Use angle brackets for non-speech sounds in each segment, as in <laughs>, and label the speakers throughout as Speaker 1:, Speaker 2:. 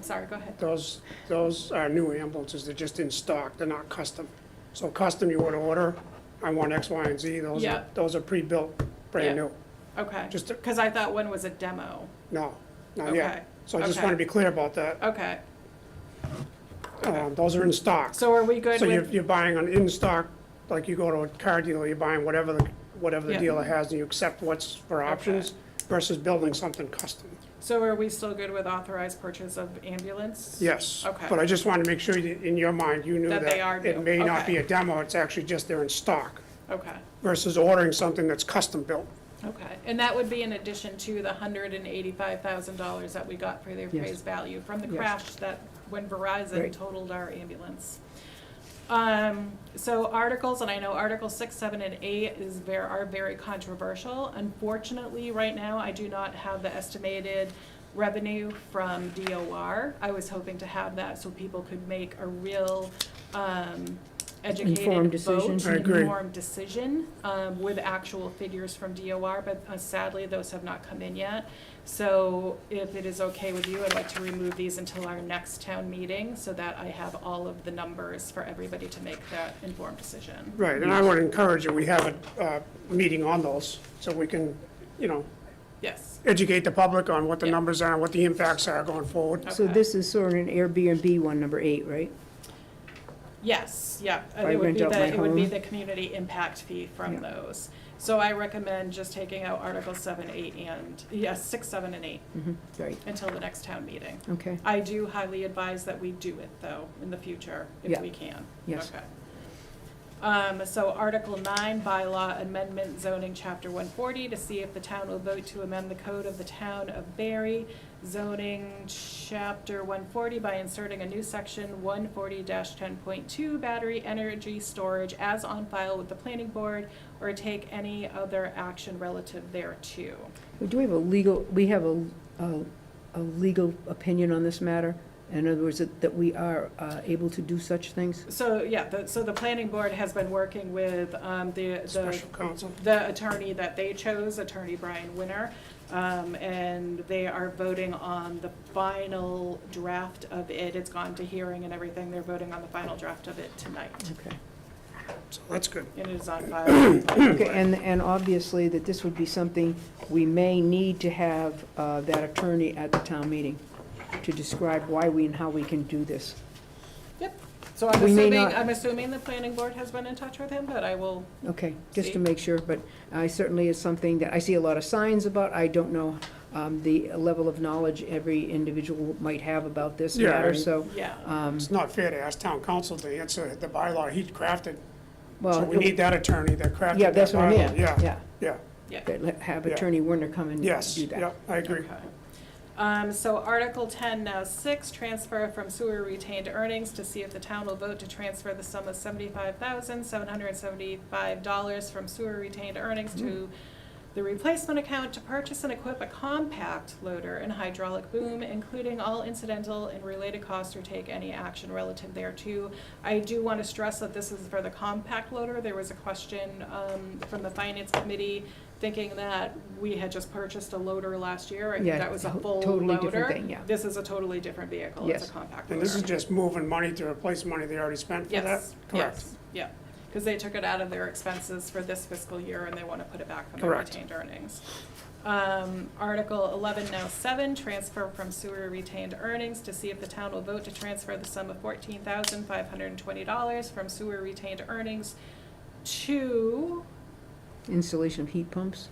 Speaker 1: sorry, go ahead.
Speaker 2: Those, those are new ambulances, they're just in stock, they're not custom. So custom, you would order, I want X, Y, and Z, those
Speaker 1: Yeah.
Speaker 2: are, those are pre-built, brand
Speaker 1: Yeah.
Speaker 2: new.
Speaker 1: Okay,
Speaker 2: Just, a-
Speaker 1: because I thought one was a demo.
Speaker 2: no, not
Speaker 1: Okay,
Speaker 2: yet. So I just
Speaker 1: okay.
Speaker 2: want to be clear about that.
Speaker 1: okay.
Speaker 2: Um, Those are in stock.
Speaker 1: So are we good
Speaker 2: So you're,
Speaker 1: with,
Speaker 2: you're buying an in-stock, like you go to a car dealer, you're buying whatever the, whatever the
Speaker 1: Yeah.
Speaker 2: dealer has, and you accept what's for
Speaker 1: Okay.
Speaker 2: options versus building something custom.
Speaker 1: so are we still good with authorized purchase of ambulance?
Speaker 2: Yes.
Speaker 1: Okay.
Speaker 2: But I just wanted to make sure that in your mind, you knew
Speaker 1: That
Speaker 2: that.
Speaker 1: they are new.
Speaker 2: It may not
Speaker 1: Okay.
Speaker 2: be a demo, it's actually just they're in stock
Speaker 1: Okay,
Speaker 2: versus ordering something that's custom built.
Speaker 1: okay. And that would be in addition to the hundred and eighty-five thousand dollars that we got for the appraised value from the
Speaker 2: Yes.
Speaker 1: crash that, when Verizon
Speaker 2: Right.
Speaker 1: totaled our ambulance. Um, so articles, and I know Article six, seven, and eight is ver- are very controversial. Unfortunately, right now, I do not have the estimated revenue from DOR. I was hoping to have that so people could make a real, um,
Speaker 3: Informed
Speaker 1: educated
Speaker 3: decision.
Speaker 1: vote.
Speaker 2: I agree.
Speaker 1: Informed decision, um, with actual figures from DOR, but uh, sadly, those have not come in yet. So if it is okay with you, I'd like to remove these until our next town meeting so that I have all of the numbers for everybody to make that informed decision.
Speaker 2: Right, and I would encourage that we have a, uh meeting on those, so we can, you know,
Speaker 1: Yes,
Speaker 2: educate the public on what the
Speaker 1: Yeah.
Speaker 2: numbers are, what the impacts are going forward.
Speaker 3: So
Speaker 1: Okay.
Speaker 3: this is sort of an Airbnb one, number eight, right?
Speaker 1: yes, yeah.
Speaker 3: If I
Speaker 1: It would
Speaker 3: rent
Speaker 1: be
Speaker 3: out
Speaker 1: the,
Speaker 3: my
Speaker 1: it would be
Speaker 3: home.
Speaker 1: the community impact fee from
Speaker 3: Yeah.
Speaker 1: those. So I recommend just taking out Article seven, eight, and, yes, six, seven, and eight
Speaker 3: Mhm, Right,
Speaker 1: until the next town meeting.
Speaker 3: okay,
Speaker 1: I do highly advise that we do it, though, in the future, if
Speaker 3: Yeah.
Speaker 1: we can.
Speaker 3: Yes.
Speaker 1: Okay. Um, so Article nine, bylaw amendment zoning, chapter one forty, to see if the town will vote to amend the code of the town of Barry, zoning chapter one forty by inserting a new section one forty ten point two, battery energy storage as on file with the planning board, or take any other action relative thereto.
Speaker 3: Well, Do we have a legal, we have a, a, a legal opinion on this matter? In other words, that, that we are uh, able to do such things?
Speaker 1: So, yeah, the, so the planning board has been working with, um, the, the
Speaker 2: Special counsel.
Speaker 1: the attorney that they chose, attorney Brian Winner, um, and they are voting on the final draft of it. It's gone to hearing and everything. They're voting on the final draft of it tonight,
Speaker 3: Okay.
Speaker 2: So that's good.
Speaker 1: and it is on
Speaker 3: <coughs>
Speaker 1: file.
Speaker 3: Okay, and, and obviously that this would be something we may need to have uh, that attorney at the town meeting to describe why we and how we can do this.
Speaker 1: Yep. So I'm
Speaker 3: We may
Speaker 1: assuming,
Speaker 3: not-
Speaker 1: I'm assuming the planning board has been in touch with him, but I will,
Speaker 3: Okay, just
Speaker 1: See?
Speaker 3: to make sure, but I certainly is something that I see a lot of signs about. I don't know um, the level of knowledge every individual might have about this
Speaker 2: Yeah,
Speaker 3: matter,
Speaker 2: and-
Speaker 3: so,
Speaker 1: yeah.
Speaker 3: um,
Speaker 2: It's not fair to ask town council to answer the bylaw he crafted. So
Speaker 3: well,
Speaker 2: we need that attorney that crafted that bylaw.
Speaker 3: yeah, that's what I meant.
Speaker 2: Yeah, yeah,
Speaker 3: But let- Have
Speaker 2: Yeah.
Speaker 3: Attorney Werner come and do that.
Speaker 2: yes, yeah, I agree.
Speaker 1: Okay. Um, so Article ten now six, transfer from sewer retained earnings to see if the town will vote to transfer the sum of seventy-five thousand, seven hundred and seventy-five dollars from sewer retained earnings to the replacement account to purchase and equip a compact loader and hydraulic boom, including all incidental and related costs or take any action relative thereto. I do want to stress that this is for the compact loader. There was a question, um, from the finance committee thinking that we had just purchased a loader last year. I think
Speaker 3: Yeah,
Speaker 1: that was a
Speaker 3: to-
Speaker 1: full
Speaker 3: totally different
Speaker 1: loader.
Speaker 3: thing, yeah.
Speaker 1: This is a totally different vehicle. It's a
Speaker 3: Yes.
Speaker 1: compact
Speaker 2: And
Speaker 1: loader.
Speaker 2: this is just moving money to replace money they already spent for that?
Speaker 1: Yes,
Speaker 2: Correct.
Speaker 1: yes, yeah. Because they took it out of their expenses for this fiscal year and they want to put it back from their
Speaker 2: Correct.
Speaker 1: retained earnings. Um, Article eleven now seven, transfer from sewer retained earnings to see if the town will vote to transfer the sum of fourteen thousand five hundred and twenty dollars from sewer retained earnings to,
Speaker 3: Installation of heat pumps.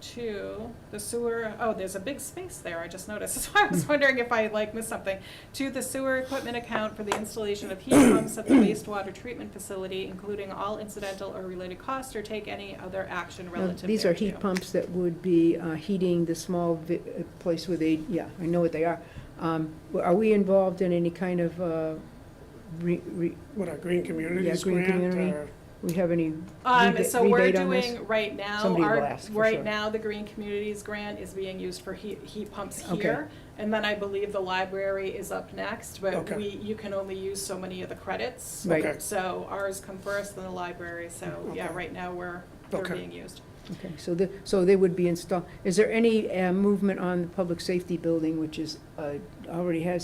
Speaker 1: to the sewer, oh, there's a big space there, I just noticed. <laughs> So I
Speaker 3: Hmm.
Speaker 1: was wondering if I like missed something. To the sewer equipment account for the installation of heat pumps
Speaker 3: <coughs>
Speaker 1: at the wastewater treatment facility, including all incidental or related costs, or take any other action
Speaker 3: Now,
Speaker 1: relative thereto.
Speaker 3: These are heat pumps that would be uh, heating the small vi- uh, place where they, yeah, I know what they are. Um, Are we involved in any kind of, uh, re- re-
Speaker 2: What, a Green Communities
Speaker 3: Green
Speaker 2: grant
Speaker 3: Community.
Speaker 2: or?
Speaker 3: we have any
Speaker 1: Um,
Speaker 3: rebate-
Speaker 1: so we're
Speaker 3: rebate on this?
Speaker 1: doing, right now,
Speaker 3: Somebody will
Speaker 1: our,
Speaker 3: ask for
Speaker 1: right
Speaker 3: sure.
Speaker 1: now, the Green Communities Grant is being used for heat, heat pumps
Speaker 3: Okay.
Speaker 1: here. And then I believe the library is up next, but
Speaker 2: Okay.
Speaker 1: we, you can only use so many of the credits.
Speaker 3: Right.
Speaker 2: Okay.
Speaker 1: So ours come first, then the library, so, yeah,
Speaker 2: Okay.
Speaker 1: right now, we're, they're
Speaker 2: Okay.
Speaker 1: being used.
Speaker 3: Okay, so the, so they would be installed, is there any uh, movement on the public safety building, which is, uh, already has